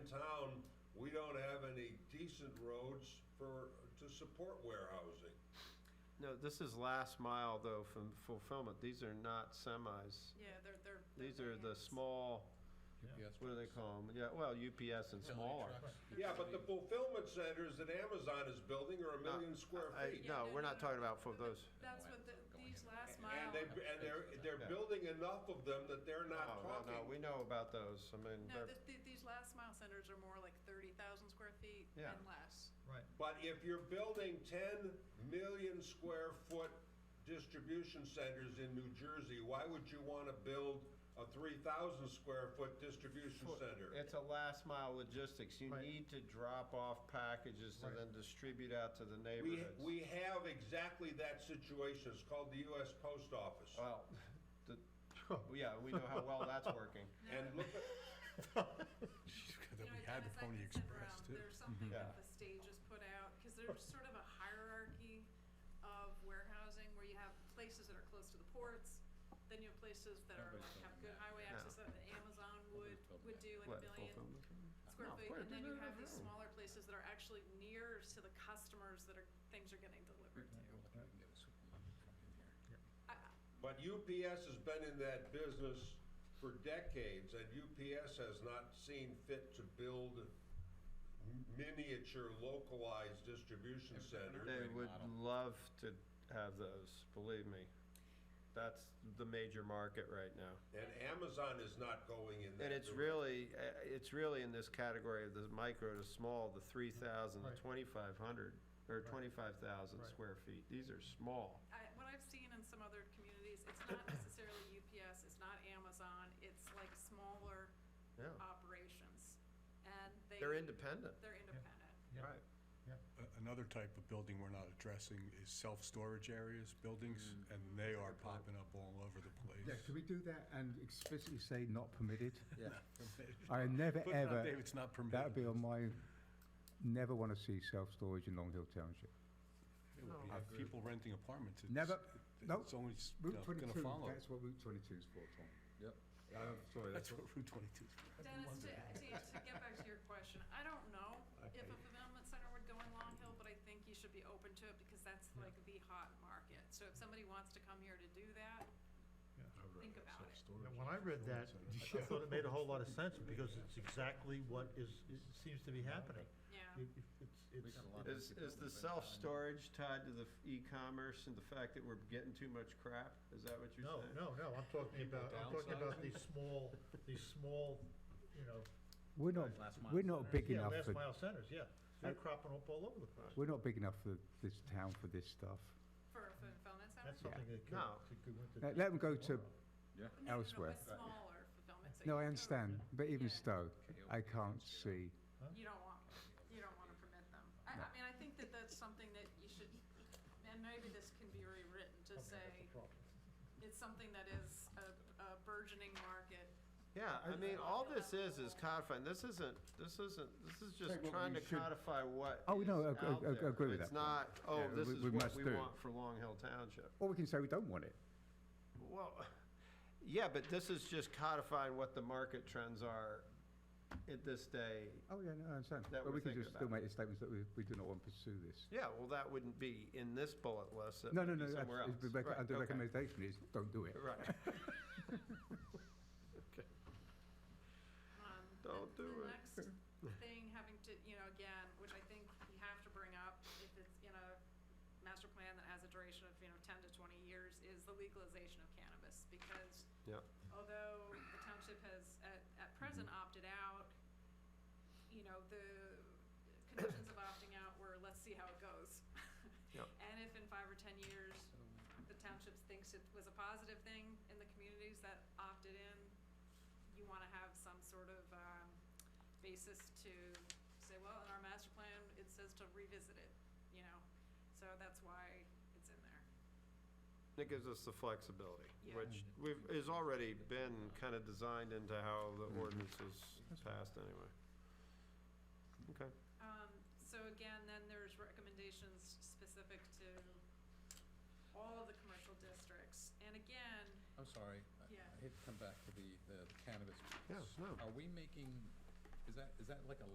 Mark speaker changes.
Speaker 1: we don't have any decent roads for, to support warehousing.
Speaker 2: No, this is last mile though from fulfillment. These are not semis.
Speaker 3: Yeah, they're, they're. they're
Speaker 2: These are the
Speaker 3: vans.
Speaker 2: small, what do they call them? Yeah, well, UPS and smaller.
Speaker 1: Yeah, but the fulfillment centers that Amazon is building are a
Speaker 2: No,
Speaker 1: million square
Speaker 2: I-
Speaker 1: feet.
Speaker 3: Yeah,
Speaker 2: no, we're not talking about for
Speaker 3: but
Speaker 2: those.
Speaker 3: That's what the, these last
Speaker 1: And
Speaker 3: mile,
Speaker 1: they, and they're, they're
Speaker 2: Yeah.
Speaker 1: building enough of them that they're
Speaker 2: No,
Speaker 1: not
Speaker 2: no,
Speaker 1: talking.
Speaker 2: no, we know about those. I mean,
Speaker 3: no,
Speaker 2: they're,
Speaker 3: th- th- these last mile centers are more like thirty thousand square feet
Speaker 2: Yeah.
Speaker 3: and less.
Speaker 1: But if you're building ten million square foot distribution centers in New Jersey, why would you wanna build a three thousand square foot distribution
Speaker 2: Foot.
Speaker 1: center?
Speaker 2: it's a last mile logistics. You
Speaker 4: Right.
Speaker 2: need to drop off packages to
Speaker 4: Right.
Speaker 2: then distribute out to the
Speaker 1: We,
Speaker 2: neighborhoods.
Speaker 1: we have exactly that situation. It's called the US Post Office.
Speaker 2: Well, the, yeah, we know how well that's working.
Speaker 1: And look, at-
Speaker 3: You know, and as I said, um, There's something
Speaker 2: Mm-hmm.
Speaker 3: that the stage has put out, because there's sort of a hierarchy of warehousing where you have places that are close to the ports, then you have places that are like have good highway
Speaker 2: No.
Speaker 3: access that the Amazon would,
Speaker 5: building
Speaker 3: would do like
Speaker 2: What,
Speaker 3: a million
Speaker 2: fulfillment?
Speaker 3: square
Speaker 5: No,
Speaker 3: feet,
Speaker 5: where
Speaker 3: and
Speaker 5: do
Speaker 3: then you
Speaker 5: they
Speaker 3: have these
Speaker 5: have?
Speaker 3: smaller places that are actually near to the customers that are, things are getting delivered to. I,
Speaker 1: but UPS has been in that business for decades and UPS has not seen fit to build m- miniature localized distribution
Speaker 5: If they're
Speaker 1: centers.
Speaker 2: They
Speaker 5: Great
Speaker 2: would
Speaker 5: model.
Speaker 2: love to have those, believe me. That's the major market right now.
Speaker 1: And Amazon is not going in that.
Speaker 2: And it's
Speaker 1: direction.
Speaker 2: really, uh, it's really in this category of the micro to small, the three thousand,
Speaker 4: Right.
Speaker 2: twenty-five hundred, or
Speaker 4: Right.
Speaker 2: twenty-five thousand
Speaker 4: Right.
Speaker 2: square feet. These are small.
Speaker 3: I, what I've seen in some other communities, it's not necessarily UPS, it's not Amazon, it's like smaller
Speaker 2: Yeah,
Speaker 3: operations. And they.
Speaker 2: they're independent.
Speaker 3: They're independent.
Speaker 4: Yeah.
Speaker 2: Right.
Speaker 6: A- Another type of building we're not addressing is self-storage areas, buildings, and they are popping up all over the
Speaker 4: Yeah,
Speaker 6: place.
Speaker 4: could we do that and explicitly say not permitted?
Speaker 2: Yeah.
Speaker 4: I never
Speaker 6: Put it out
Speaker 4: ever,
Speaker 6: there, it's not
Speaker 4: that would be on my,
Speaker 6: permitted.
Speaker 4: never want to see self-storage in Long Hill Township.
Speaker 6: It would be
Speaker 2: No, I agree.
Speaker 6: People renting apartments, it's,
Speaker 4: Never-
Speaker 6: it-
Speaker 4: no,
Speaker 6: it's only, s- you
Speaker 4: Route
Speaker 6: know, gonna
Speaker 4: 22,
Speaker 6: follow.
Speaker 4: that's what Route 22 is for, Tom.
Speaker 5: Yep.
Speaker 4: I'm sorry, that's
Speaker 6: That's
Speaker 4: what,
Speaker 6: what Route 22 is for. I've been
Speaker 3: Dennis, to, to,
Speaker 6: wondering.
Speaker 3: to get back to your question, I don't know if a fulfillment center would go in Long Hill, but I think you should be open to it because that's like the hot market. So if somebody wants to come here to do that, think about it.
Speaker 7: Yeah, When I read that, I thought it made a whole lot of sense, because it's exactly what is, it seems to be happening.
Speaker 3: Yeah,
Speaker 7: It- It's, it's,
Speaker 5: got a lot of-
Speaker 2: Is, is the self-storage tied to the f- e-commerce and the fact that we're getting too much crap? Is that what you're
Speaker 7: no,
Speaker 2: saying?
Speaker 7: no, no, I'm talking about, I'm talking about these small, these small, you know,
Speaker 4: we're not,
Speaker 5: Last mile
Speaker 4: we're not Oh, big
Speaker 7: yeah,
Speaker 4: enough
Speaker 7: last
Speaker 4: for,
Speaker 7: mile centers, yeah. They're cropping up all over the place.
Speaker 4: we're not big enough for this town for this stuff.
Speaker 3: for a fulfillment center.
Speaker 7: That's something that could,
Speaker 2: No.
Speaker 7: could go into.
Speaker 4: Let- let 'em go to-
Speaker 3: No, no, no, a
Speaker 4: elsewhere.
Speaker 3: smaller fulfillment center.
Speaker 4: No, I understand, but even
Speaker 3: Yeah.
Speaker 4: so, I can't see,
Speaker 3: You don't want, you don't wanna permit them. I, I mean, I think that that's something that you should, and maybe this can be rewritten to say, it's something that is a, a burgeoning market.
Speaker 2: Yeah, I mean, all this is, is codifying, this isn't, this isn't, this is just
Speaker 4: Say what
Speaker 2: trying to
Speaker 4: we should-
Speaker 2: codify what
Speaker 4: Oh,
Speaker 2: is
Speaker 4: no, ag-
Speaker 2: out
Speaker 4: ag- ag-
Speaker 2: there.
Speaker 4: agree with
Speaker 2: It's
Speaker 4: that
Speaker 2: not, oh,
Speaker 4: Yeah,
Speaker 2: this
Speaker 4: we-
Speaker 2: is
Speaker 4: we
Speaker 2: what
Speaker 4: must
Speaker 2: we
Speaker 4: do.
Speaker 2: want for Long Hill Township.
Speaker 4: or we can say we don't want it.
Speaker 2: Well, yeah, but this is just codifying what the market trends are at this day.
Speaker 4: Oh, yeah, no, I understand,
Speaker 2: That
Speaker 4: but
Speaker 2: we're
Speaker 4: we can
Speaker 2: thinking
Speaker 4: just still
Speaker 2: about.
Speaker 4: make the statements that we, we do not want to pursue this.
Speaker 2: Yeah, well, that wouldn't be in this bullet list, it
Speaker 4: No, no,
Speaker 2: would
Speaker 4: no,
Speaker 2: be
Speaker 4: that's-
Speaker 2: somewhere else.
Speaker 4: it's the rec-
Speaker 2: Right,
Speaker 4: uh, the
Speaker 2: okay.
Speaker 4: recommendation is, don't do it.
Speaker 2: Right,
Speaker 3: Um, the-
Speaker 2: Don't do it.
Speaker 3: The next thing having to, you know, again, which I think you have to bring up if it's in a master plan that has a duration of, you know, ten to twenty years, is the legalization of cannabis, because
Speaker 2: Yep.
Speaker 3: although the township has at, at present
Speaker 2: Mm-hmm.
Speaker 3: opted out, you know, the conditions of opting out were, let's see how it goes.
Speaker 2: Yep.
Speaker 3: And if in five or ten years, the township thinks it was a positive thing in the communities that opted in, you wanna have some sort of, um, basis to say, well, in our master plan, it says to revisit it, you know? So that's why it's in there.
Speaker 2: It gives us the flexibility,
Speaker 3: Yeah.
Speaker 2: which we've, is already been kind of designed into how the ordinance is passed anyway. Okay.
Speaker 3: Um, so again, then there's recommendations specific to all of the commercial districts, and again,
Speaker 5: I'm sorry, I
Speaker 3: Yeah.
Speaker 5: I hate to come back to the, the cannabis.
Speaker 2: Yeah,
Speaker 5: piece.
Speaker 2: no.
Speaker 5: Are we making, is that, is that like a